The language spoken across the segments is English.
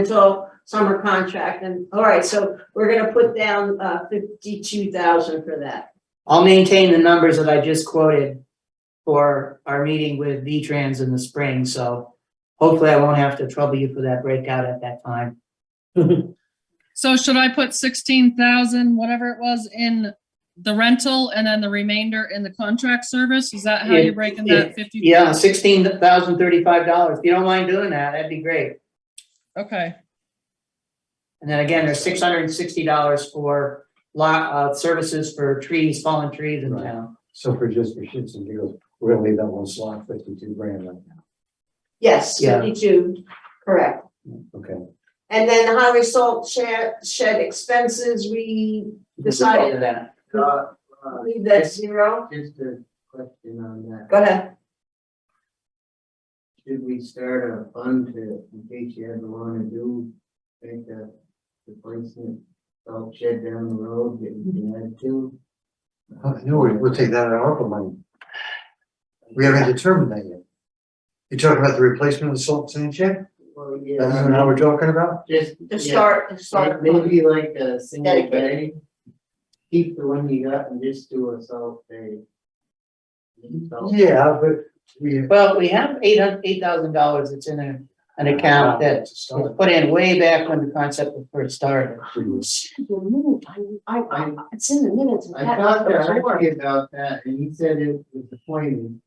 rental, summer contract, and, all right, so we're gonna put down, uh, fifty-two thousand for that. I'll maintain the numbers that I just quoted for our meeting with V-Trans in the spring, so hopefully I won't have to trouble you for that breakout at that time. So should I put sixteen thousand, whatever it was, in the rental and then the remainder in the contract service? Is that how Yeah, you're breaking yeah, that fifty? Yeah, sixteen thousand thirty-five dollars. If you don't mind doing that, that'd be great. Okay, And then again, there's six hundred and sixty dollars for lot, uh, services for trees, fallen trees in Right. town. So for just for shits and giggles, we're gonna leave that one slot fifty-two grand right now, Yes, Yeah. fifty-two, correct. okay? And then the highway salt shed, shed expenses, we decided, That. Uh, leave that zero, just a question on that. go ahead. Should we start a fund to, in case you ever wanna do, make a replacement salt shed down the road that you can add to? Oh, I know, we- we'll take that out of ARPA money. We haven't determined that yet. You're talking about the replacement of the salt sand shed? Well, Uh-huh. That's yeah, what we're talking about? just. To yeah, start, to start, Maybe like a single Dedicate. bay. Keep the one you got and just do a salt bay. Salt- Yeah, but we. Well, we have eight hundred, eight thousand dollars that's in a, an account that was put in way back when the concept was first started. I, I, it's in the minutes. I talked to Archie about that and he said it was appointed.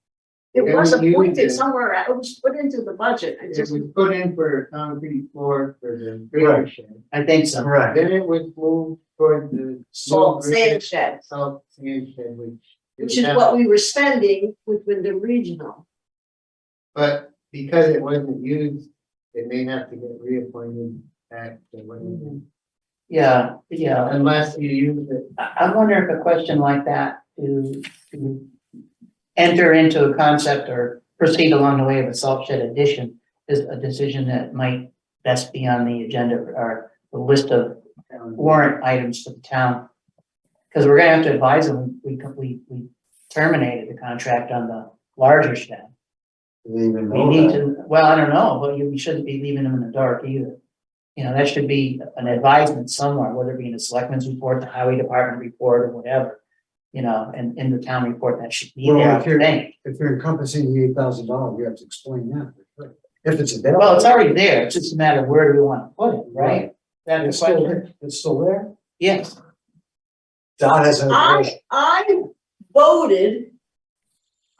It was Then you appointed did. somewhere, it was put into the budget, I It just, was put in for a concrete floor for the trailer shed. I think so. Right, Then it was moved toward the. salt Salt sand shed, Salt sand shed, which. which is what we were spending with Wyndham Regional. But because it wasn't used, it may have to get reappointed back to what it was. Yeah, yeah. Unless you use it. I, I wonder if a question like that to, to enter into a concept or proceed along the way of a salt shed addition is a decision that might best be on the agenda or the list of um, warrant items for the town. Because we're gonna have to advise them, we, we, we terminated the contract on the larger shed. they even We know need that. to, well, I don't know, but you, we shouldn't be leaving them in the dark either. You know, that should be an advisement somewhere, whether it be in the selectmen's report, the highway department report, or whatever. You know, and in the town report, that should be Well, there, I if you're- think. If you're encompassing the eight thousand dollars, we have to explain that. If it's available. Well, it's already there, it's just a matter of where do we wanna put it, right? That It's is still question, there, it's still there. yes, Dot has an. I, I voted.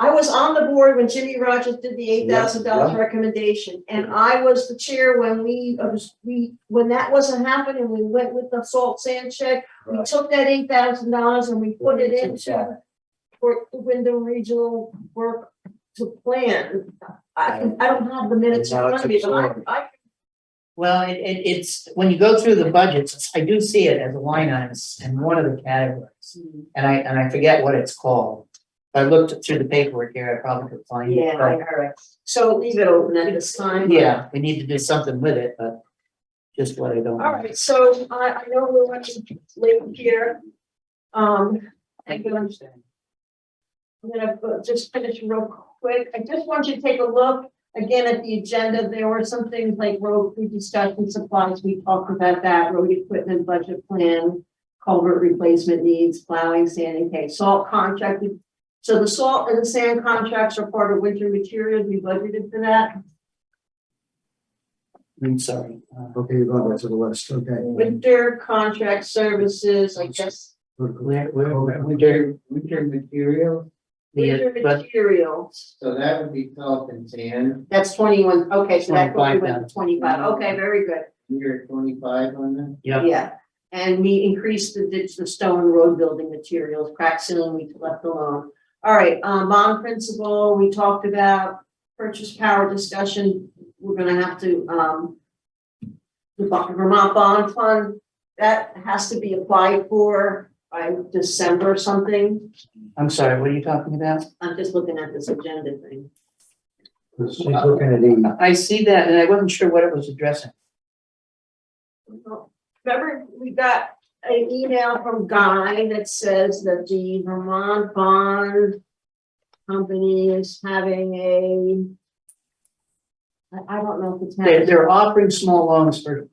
I was on the board when Jimmy Rogers did the eight thousand dollars yeah. recommendation, and I was the chair when we, uh, was- we, when that wasn't happening, we went with the salt sand shed. We Right. took that eight thousand dollars and we put it into, Yeah. for the Wyndham Regional Work to Plan. I, I don't have the minutes in Now front it's of me, but absorbed. I, I well, it, it, it's, when you go through the budgets, I do see it as a line item in one of the categories. And I, and I forget what it's called. If I looked through the paperwork here, I probably could find it. Yeah, but- all right. So leave it open at this time. Yeah, we need to do something with it, but just what I don't. All right, so I, I know we're running late here. Um, I'm gonna, understand. I'm gonna uh, just finish real quick. I just want you to take a look again at the agenda. There were some things like road, we discussed and supplies, we talked about that, road equipment, budget plan, culvert replacement needs, plowing, sanding, okay, salt contract. We- So the salt and the sand contracts are part of winter materials. We budgeted for that. I'm sorry. Uh, Okay, you're going back to the list, okay. Winter contract services, I guess, Where, where, where- where, Winter, winter material, winter the, but, materials, so that would be salt and sand, that's twenty-one, okay, so that goes went 25 then. to twenty-five, okay, very good, you're twenty-five on that. yeah, yeah. And we increased the ditch, the stone road building materials, crack sealing, we left alone. All right, um, bond principle, we talked about purchase power discussion, we're gonna have to, um, the Bo- Vermont Bond Fund, that has to be applied for by December something. I'm sorry, what are you talking about? I'm just looking at this agenda thing. She's looking at eight. I see that and I wasn't sure what it was addressing. Remember, we got an email from Guy that says that the Vermont Bond Company is having a I, I don't know if it's. They're, they're offering small loans for